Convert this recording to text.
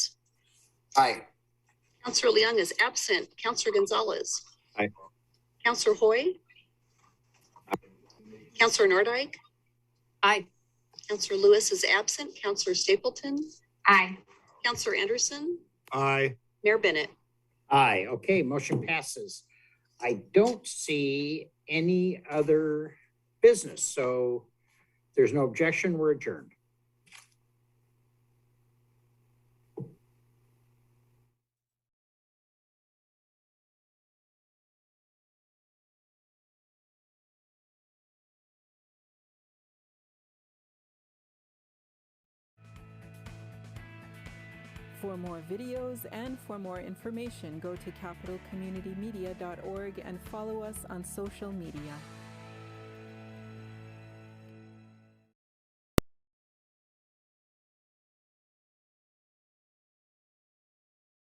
Aye. Counselor Leung is absent. Counselor Gonzalez. Aye. Counselor Hoy. Counselor Nordike. Aye. Counselor Lewis is absent. Counselor Stapleton. Aye. Counselor Anderson. Aye. Mayor Bennett. Aye, okay, motion passes. I don't see any other business, so if there's no objection, we're adjourned. For more videos and for more information, go to capitalcommunitymedia.org and follow us on social media.